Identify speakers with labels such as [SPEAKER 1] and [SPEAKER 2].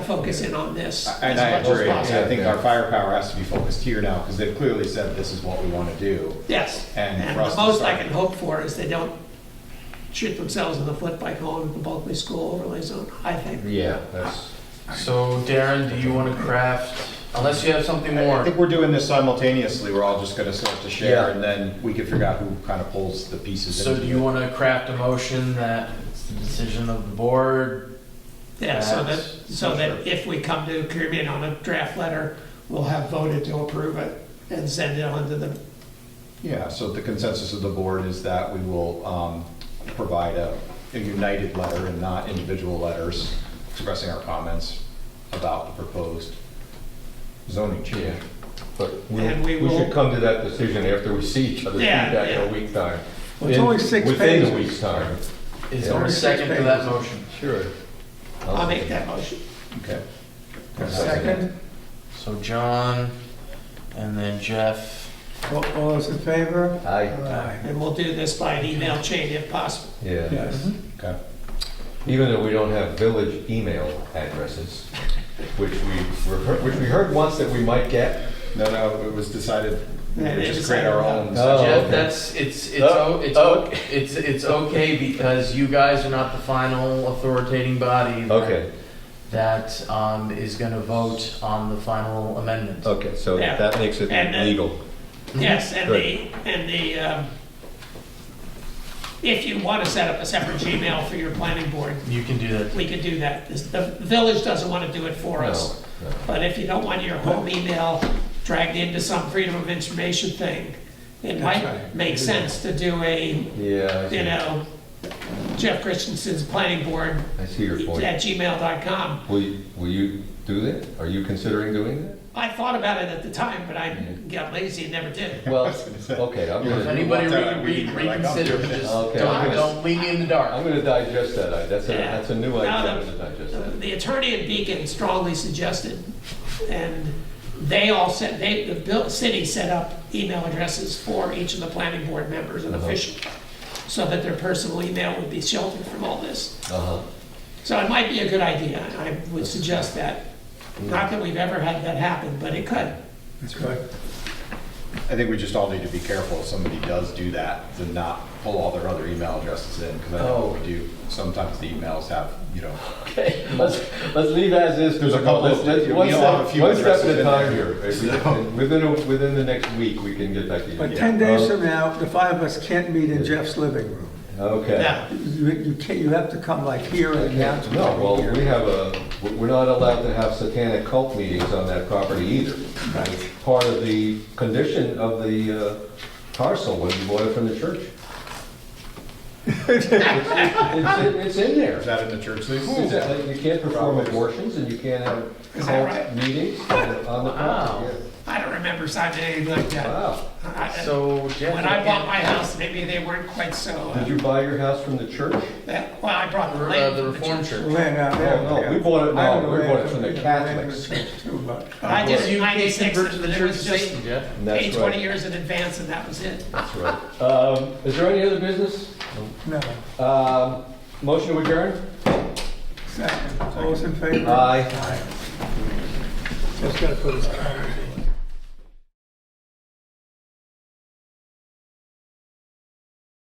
[SPEAKER 1] focus in on this.
[SPEAKER 2] And I
[SPEAKER 1] as much as
[SPEAKER 2] agree,
[SPEAKER 1] possible.
[SPEAKER 2] I think our firepower has to be focused here now, because they've clearly said this is what we want to do.
[SPEAKER 1] Yes,
[SPEAKER 2] And
[SPEAKER 1] and
[SPEAKER 2] for us
[SPEAKER 1] the
[SPEAKER 2] to
[SPEAKER 1] most I
[SPEAKER 2] start-
[SPEAKER 1] can hope for is they don't shoot themselves in the foot by going to the Bulkley School overlay zone, I think.
[SPEAKER 3] Yeah, that's,
[SPEAKER 4] So Darren, do you want to craft, unless you have something
[SPEAKER 2] I I
[SPEAKER 4] more?
[SPEAKER 2] think we're doing this simultaneously, we're all just gonna start to share,
[SPEAKER 3] Yeah.
[SPEAKER 2] and then we can figure out who kind of pulls the pieces.
[SPEAKER 4] So
[SPEAKER 2] into
[SPEAKER 4] do you
[SPEAKER 2] it.
[SPEAKER 4] want to craft a motion that it's the decision of the board?
[SPEAKER 1] Yeah, so that,
[SPEAKER 4] That's-
[SPEAKER 1] so that if we come to agreement on a draft letter, we'll have voted to approve it and send it on to the,
[SPEAKER 2] Yeah, so the consensus of the board is that we will um, provide a a united letter and not individual letters expressing our comments about the proposed zoning
[SPEAKER 3] yeah.
[SPEAKER 2] change.
[SPEAKER 3] But
[SPEAKER 1] And we
[SPEAKER 3] we, we
[SPEAKER 1] will-
[SPEAKER 3] should come to that decision after we see each other's
[SPEAKER 1] Yeah,
[SPEAKER 3] feedback in a
[SPEAKER 1] yeah.
[SPEAKER 3] week time.
[SPEAKER 5] Well, it's
[SPEAKER 3] In-
[SPEAKER 5] only six
[SPEAKER 3] Within
[SPEAKER 5] pages.
[SPEAKER 3] a week's time.
[SPEAKER 4] Is
[SPEAKER 3] Yeah.
[SPEAKER 4] there a second to that motion?
[SPEAKER 3] Sure.
[SPEAKER 1] I'll make that motion.
[SPEAKER 2] Okay.
[SPEAKER 5] Second,
[SPEAKER 4] So John, and then Jeff.
[SPEAKER 5] all all those in favor?
[SPEAKER 3] Aye,
[SPEAKER 1] And we'll do this by an email chain if possible.
[SPEAKER 3] yeah.
[SPEAKER 5] Yes.
[SPEAKER 2] Okay.
[SPEAKER 3] Even though we don't have village email addresses, which we, were- which we heard once that we might get.
[SPEAKER 2] No, no, it was decided, we
[SPEAKER 1] Yeah,
[SPEAKER 2] would
[SPEAKER 1] they
[SPEAKER 2] just create our
[SPEAKER 1] decided
[SPEAKER 2] own.
[SPEAKER 3] that. Oh,
[SPEAKER 4] Jeff,
[SPEAKER 3] okay.
[SPEAKER 4] that's, it's, it's,
[SPEAKER 3] Oh,
[SPEAKER 4] o- it's,
[SPEAKER 3] oh.
[SPEAKER 4] o- it's, it's okay because you guys are not the final authoritating body. that-
[SPEAKER 3] Okay,
[SPEAKER 4] That, um, is gonna vote on the final amendment.
[SPEAKER 3] okay, so
[SPEAKER 1] Yeah.
[SPEAKER 3] that makes it
[SPEAKER 1] And, uh,
[SPEAKER 3] legal.
[SPEAKER 1] Yes, and the, and the, um, if you want to set up a separate Gmail for your planning board,
[SPEAKER 4] You can do that.
[SPEAKER 1] we could do that. This- The village doesn't want to do it for us.
[SPEAKER 3] No, no.
[SPEAKER 1] But if you don't want your home email dragged into some freedom of information thing, it might
[SPEAKER 5] right.
[SPEAKER 1] make sense to do a,
[SPEAKER 3] Yeah, I
[SPEAKER 1] you
[SPEAKER 3] see,
[SPEAKER 1] know, Jeff Christensen's planning board
[SPEAKER 3] I see your point.
[SPEAKER 1] at gmail.com.
[SPEAKER 3] Will, you- will you do that? Are you considering doing that?
[SPEAKER 1] I thought about it at the time, but I
[SPEAKER 3] Mm-hmm.
[SPEAKER 1] got lazy and never did.
[SPEAKER 3] Well,
[SPEAKER 2] gonna say.
[SPEAKER 3] okay, I'm
[SPEAKER 4] If
[SPEAKER 3] gonna,
[SPEAKER 4] anybody
[SPEAKER 2] want that,
[SPEAKER 4] re-
[SPEAKER 2] we
[SPEAKER 4] re-
[SPEAKER 2] can be like, I'm
[SPEAKER 4] reconsider,
[SPEAKER 2] doing it.
[SPEAKER 4] just
[SPEAKER 3] Okay.
[SPEAKER 4] don't, don't leave me in the dark.
[SPEAKER 3] I'm gonna digest that, I- that's a,
[SPEAKER 1] Yeah.
[SPEAKER 3] that's a new
[SPEAKER 1] No,
[SPEAKER 3] idea,
[SPEAKER 1] no.
[SPEAKER 3] I'm gonna digest that.
[SPEAKER 1] The attorney at Beacon strongly suggested, and they all set, they, the bill- city set up email addresses for each of the planning board members and
[SPEAKER 3] Uh-huh.
[SPEAKER 1] officials, so that their personal email would be sheltered from all this.
[SPEAKER 3] Uh-huh,
[SPEAKER 1] So it might be a good idea, I would suggest that. Not that we've ever had that happen, but it could.
[SPEAKER 5] That's right.
[SPEAKER 2] I think we just all need to be careful if somebody does do that, to not pull all their other email addresses in, because I know what we do, sometimes the emails have, you know,
[SPEAKER 3] okay, let's, let's leave as is.
[SPEAKER 2] There's a couple of-
[SPEAKER 3] Let's-
[SPEAKER 2] we
[SPEAKER 3] One
[SPEAKER 2] all have a
[SPEAKER 3] step,
[SPEAKER 2] few
[SPEAKER 3] one step
[SPEAKER 2] addresses
[SPEAKER 3] at a
[SPEAKER 2] in there.
[SPEAKER 3] time here. If we-
[SPEAKER 2] So-
[SPEAKER 3] Within, a- within the next week, we can get back to you.
[SPEAKER 5] But 10 days from now, the five of us can't meet in Jeff's living room.
[SPEAKER 3] Okay.
[SPEAKER 1] Now,
[SPEAKER 5] You you can't, you have to come like here and now. to
[SPEAKER 3] No, well,
[SPEAKER 5] here.
[SPEAKER 3] we have a, we're not allowed to have satanic cult meetings on that property either. It's Part of the condition of the uh, parcel when you bought it from the church. It's in- It's in
[SPEAKER 2] is
[SPEAKER 3] there.
[SPEAKER 2] that in the church lease?
[SPEAKER 3] It's that You can't perform abortions and you can't have
[SPEAKER 1] Is that right?
[SPEAKER 3] cult meetings on the
[SPEAKER 4] Wow.
[SPEAKER 3] property.
[SPEAKER 1] I don't remember signing anything like
[SPEAKER 3] yeah.
[SPEAKER 1] that.
[SPEAKER 3] Wow.
[SPEAKER 1] I-
[SPEAKER 4] So Jeff.
[SPEAKER 1] When I bought my house, maybe they weren't quite so,
[SPEAKER 3] Did
[SPEAKER 1] uh,
[SPEAKER 3] you buy your house from the church?
[SPEAKER 1] that- well, I brought the
[SPEAKER 4] Uh,
[SPEAKER 1] land. from
[SPEAKER 4] the
[SPEAKER 1] the
[SPEAKER 4] Reformed
[SPEAKER 1] church.
[SPEAKER 4] Church.
[SPEAKER 5] Land out there.
[SPEAKER 3] Oh, no, we bought it,
[SPEAKER 5] I
[SPEAKER 3] no,
[SPEAKER 5] don't
[SPEAKER 3] we
[SPEAKER 5] know,
[SPEAKER 3] bought it from the
[SPEAKER 5] land- land in
[SPEAKER 3] Catholics.
[SPEAKER 5] church Too much.
[SPEAKER 1] I did it in
[SPEAKER 4] You can't
[SPEAKER 1] 96,
[SPEAKER 4] convert to the
[SPEAKER 1] and it
[SPEAKER 4] Church of
[SPEAKER 1] was just-
[SPEAKER 4] Satan, Jeff.
[SPEAKER 3] And
[SPEAKER 1] Paid
[SPEAKER 3] That's
[SPEAKER 1] 20
[SPEAKER 3] right,
[SPEAKER 1] years in advance and that was it.
[SPEAKER 3] that's right. Um, Is there any other business?
[SPEAKER 5] No.
[SPEAKER 3] Um, Motion to adjourn? Uh,
[SPEAKER 5] Second, all those in favor?
[SPEAKER 3] Aye.
[SPEAKER 5] Just gotta put his comments in.